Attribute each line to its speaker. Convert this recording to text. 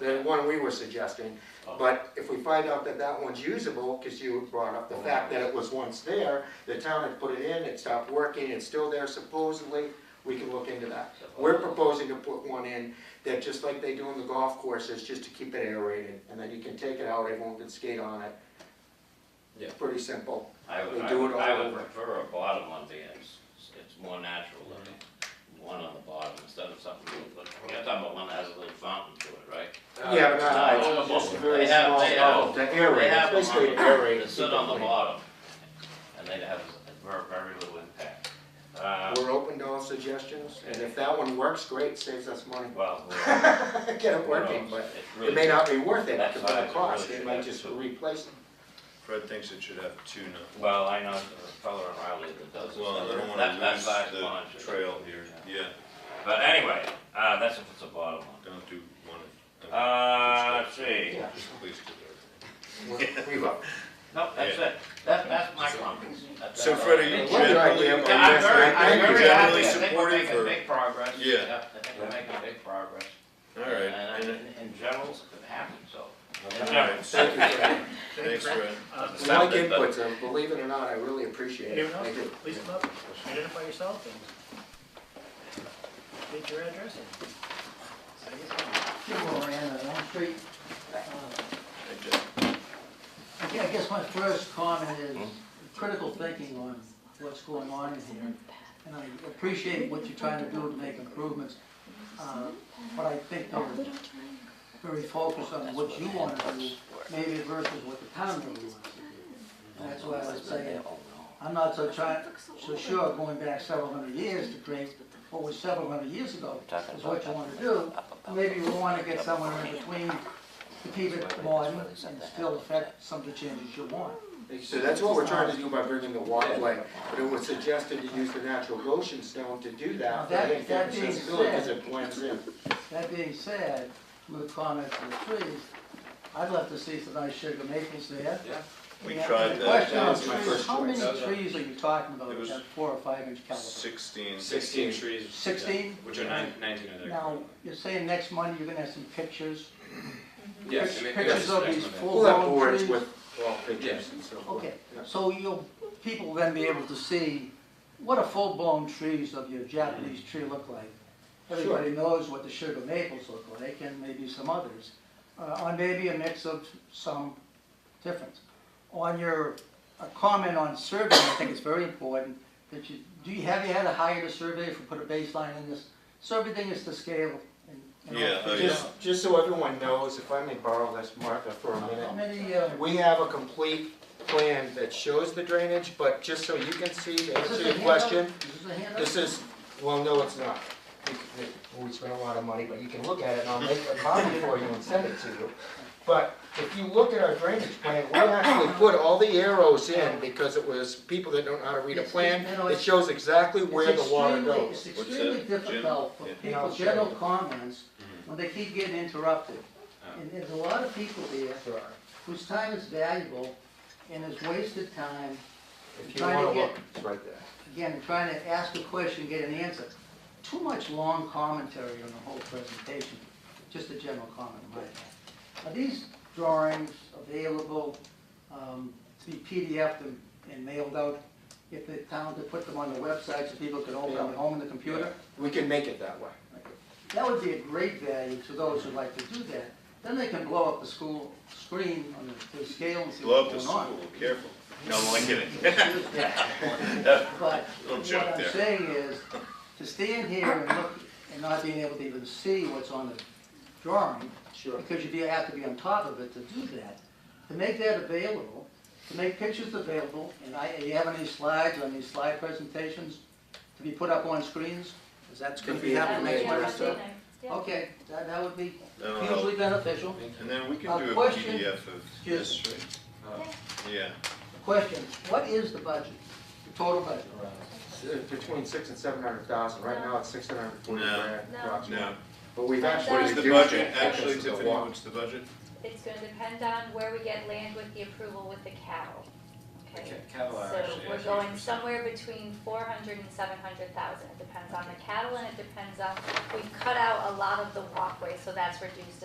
Speaker 1: the one we were suggesting.
Speaker 2: Oh.
Speaker 1: But if we find out that that one's usable, because you brought up
Speaker 2: Oh.
Speaker 1: the fact that it was once there, the town had put it in, it stopped working, it's still there supposedly, we can look into that. We're proposing to put one in that, just like they do in the golf courses, just to keep it aerated, and then you can take it out, everyone can skate on it.
Speaker 3: Yeah.
Speaker 1: Pretty simple.
Speaker 2: I would,
Speaker 1: We
Speaker 2: I
Speaker 1: do
Speaker 2: would,
Speaker 1: it all
Speaker 2: I would
Speaker 1: over.
Speaker 2: prefer a bottom on the ends, it's more natural than one on the bottom instead of something, but you're talking about one that has a little fountain to it, right?
Speaker 1: Yeah,
Speaker 4: Uh,
Speaker 1: but not-
Speaker 2: no,
Speaker 1: Uh, it's just a very
Speaker 2: they have-
Speaker 1: small,
Speaker 2: they have-
Speaker 1: oh, to aerate,
Speaker 2: They have
Speaker 1: it's
Speaker 2: them on
Speaker 1: basically
Speaker 2: the-
Speaker 1: aerate.
Speaker 2: They sit on the bottom, and they have very, very little impact. Uh,
Speaker 1: We're open to all suggestions, and if that one works, great, saves us money.
Speaker 2: Well, who
Speaker 1: Get it
Speaker 2: knows?
Speaker 1: working, but
Speaker 2: It's
Speaker 1: it
Speaker 2: really
Speaker 1: may
Speaker 2: tough.
Speaker 1: not be worth it,
Speaker 2: That
Speaker 1: because of
Speaker 2: size
Speaker 1: the
Speaker 2: is
Speaker 1: cost,
Speaker 2: really
Speaker 1: they
Speaker 2: good.
Speaker 1: might just replace them.
Speaker 5: Fred thinks it should have two now.
Speaker 2: Well, I know the fellow in Riley that does it.
Speaker 5: Well, I don't
Speaker 2: That-
Speaker 5: wanna
Speaker 2: that
Speaker 5: lose
Speaker 2: size pond
Speaker 5: the
Speaker 2: should-
Speaker 5: trail here, yeah,
Speaker 2: But anyway, uh, that's if it's a bottom one.
Speaker 5: don't do one. at-
Speaker 2: Uh, let's see.
Speaker 1: Yeah,
Speaker 5: Please do that.
Speaker 1: we- we will.
Speaker 2: No, that's it. That, that's my comments. That's-
Speaker 5: So
Speaker 2: that's
Speaker 5: Fred,
Speaker 2: all.
Speaker 5: are you
Speaker 1: What's your
Speaker 5: generally,
Speaker 1: idea,
Speaker 2: Yeah, I'm
Speaker 1: Yes,
Speaker 2: very,
Speaker 1: I
Speaker 2: I'm
Speaker 1: think
Speaker 2: very happy.
Speaker 5: you're generally
Speaker 2: I think we're
Speaker 5: supportive
Speaker 2: making
Speaker 5: of-
Speaker 2: big progress.
Speaker 5: Yeah.
Speaker 2: I think we're making big progress.
Speaker 5: all right,
Speaker 2: And
Speaker 5: and-
Speaker 2: in- in general, it's gonna happen, so. In
Speaker 5: all
Speaker 2: general.
Speaker 5: right,
Speaker 1: Thank you for that.
Speaker 5: thanks, Fred.
Speaker 6: Uh,
Speaker 1: We like inputs, and believe it or not, I really appreciate it.
Speaker 6: Anyone else?
Speaker 1: I do.
Speaker 6: Please come up, identify yourself and state your address and. say your name.
Speaker 7: Jim Moran, on Elm Street. Uh,
Speaker 5: Hey, Jeff.
Speaker 7: I gue- I guess my first comment is critical thinking on what's going on in here. And I appreciate what you're trying to do to make improvements. uh, But I think they're very focused on what you want to do, maybe versus what the town really wants to do. And that's why I was saying, I'm not so trying, so sure going back several hundred years to create what was several hundred years ago is what you want to do. Maybe we want to get somewhere in between to keep it modern and still affect some of the changes you want.
Speaker 1: So that's what we're trying to do by bringing the walkway, but it was suggested to use the natural Goshen stone to do that.
Speaker 7: That-
Speaker 1: I think
Speaker 7: that
Speaker 1: it's
Speaker 7: being
Speaker 1: accessibility, 'cause
Speaker 7: said-
Speaker 1: it blends in.
Speaker 7: That being said, with comments on the trees, I'd love to see some nice sugar maples there.
Speaker 2: Yeah.
Speaker 5: We
Speaker 7: Yeah,
Speaker 5: tried
Speaker 7: the
Speaker 5: that.
Speaker 7: question
Speaker 1: That
Speaker 7: on
Speaker 1: was my
Speaker 7: trees,
Speaker 1: first
Speaker 7: How many
Speaker 1: choice.
Speaker 7: trees are you talking about,
Speaker 5: It was-
Speaker 7: that four or five inch caliber?
Speaker 5: Sixteen.
Speaker 6: Sixteen
Speaker 4: trees.
Speaker 7: Sixteen?
Speaker 4: Which are nine, nineteen of their.
Speaker 7: Now, you're saying next Monday you're gonna have some pictures?
Speaker 4: Yes.
Speaker 7: pic-
Speaker 4: I mean,
Speaker 7: Pictures
Speaker 4: yes,
Speaker 7: of
Speaker 4: next
Speaker 7: these
Speaker 4: Monday.
Speaker 1: We'll
Speaker 7: full
Speaker 1: have
Speaker 7: grown
Speaker 1: boards
Speaker 7: trees?
Speaker 1: with wall pictures and so forth.
Speaker 7: Okay,
Speaker 1: Yeah.
Speaker 7: so you'll, people will then be able to see what a full-blown trees of your Japanese tree look like. Everybody knows what the sugar maples look like, and maybe some others, uh, or maybe a mix of some difference. On your uh, comment on survey, I think it's very important that you, do you, have you had to hire a surveyor to put a baseline in this? So everything is to scale and. and all
Speaker 5: Yeah, oh,
Speaker 7: figured
Speaker 1: Just, just so everyone knows, if I may borrow this marker for a
Speaker 7: out.
Speaker 1: minute.
Speaker 7: How many, uh,
Speaker 1: We have a complete plan that shows the drainage, but just so you can see, to
Speaker 7: is this
Speaker 1: answer
Speaker 7: a
Speaker 1: your
Speaker 7: handout?
Speaker 1: question,
Speaker 7: Is this a handout?
Speaker 1: this is, well, no, it's not. You- you- We spent a lot of money, but you can look at it, and I'll make a copy for you and send it to you. But if you look at our drainage plan, we actually put all the arrows in, because it was people that don't know how to read a
Speaker 7: It's-
Speaker 1: plan.
Speaker 7: you know,
Speaker 1: It
Speaker 7: it's-
Speaker 1: shows exactly
Speaker 7: It's
Speaker 1: where the water
Speaker 7: extremely-
Speaker 1: goes.
Speaker 7: It's
Speaker 5: What's
Speaker 7: extremely
Speaker 5: that, Jim?
Speaker 7: difficult for
Speaker 5: Yeah. Mm-hmm.
Speaker 7: people, general comments, when they keep getting interrupted.
Speaker 5: Ah.
Speaker 4: Oh.
Speaker 7: And there's a lot of people there whose time is valuable and is wasted time,
Speaker 1: If you
Speaker 7: Trying to
Speaker 1: wanna
Speaker 7: get-
Speaker 1: look, it's right there.
Speaker 7: again, trying to ask a question, get an answer. Too much long commentary on the whole presentation, just a general comment, in my opinion. Are these drawings available um, to be PDF'd and- and mailed out? If the town could put them on the website so people could open them at home on the computer?
Speaker 1: We can make it that way.
Speaker 7: That would be a great value to those who'd like to do that. Then they can blow up the school screen on the, the scale and see
Speaker 5: Love
Speaker 7: what's
Speaker 5: the
Speaker 7: going on.
Speaker 5: school, careful. No, I'm only kidding.
Speaker 7: Yeah. But
Speaker 5: Little
Speaker 7: what
Speaker 5: joke
Speaker 7: I'm
Speaker 5: there.
Speaker 7: saying is, to stand here and look and not being able to even see what's on the drawing,
Speaker 1: Sure.
Speaker 7: because you have to be on top of it to do that. To make that available, to make pictures available, and I, you have any slides on these slide presentations to be put up on screens? Is that gonna
Speaker 1: Could
Speaker 7: be
Speaker 1: be
Speaker 7: happening
Speaker 1: made
Speaker 7: next
Speaker 1: by
Speaker 7: Wednesday?
Speaker 1: yourself.
Speaker 7: Okay, that, that would be
Speaker 5: That'll
Speaker 7: hugely
Speaker 5: help.
Speaker 7: beneficial.
Speaker 5: And then we
Speaker 7: Uh,
Speaker 5: can do a
Speaker 7: question-
Speaker 5: PDF of
Speaker 7: Excuse
Speaker 5: this,
Speaker 7: me.
Speaker 5: yeah.
Speaker 7: Question, what is the budget, the total budget?
Speaker 1: Between six and seven hundred thousand, right now it's six hundred and forty
Speaker 5: No.
Speaker 1: grand
Speaker 8: No.
Speaker 1: approximately.
Speaker 5: Now,
Speaker 1: But we've actually
Speaker 5: what is the
Speaker 1: reduced
Speaker 5: budget,
Speaker 1: it
Speaker 5: actually,
Speaker 1: because of the
Speaker 5: Tiffany,
Speaker 1: walk.
Speaker 5: what's the budget?
Speaker 8: It's gonna depend on where we get land with the approval with the cattle, okay?
Speaker 4: Cattle are
Speaker 8: So
Speaker 4: actually.
Speaker 8: we're
Speaker 4: at
Speaker 8: going
Speaker 4: 80%.
Speaker 8: somewhere between four hundred and seven hundred thousand, it depends on the cattle and it depends on, we've cut out a lot of the walkway, so that's reduced to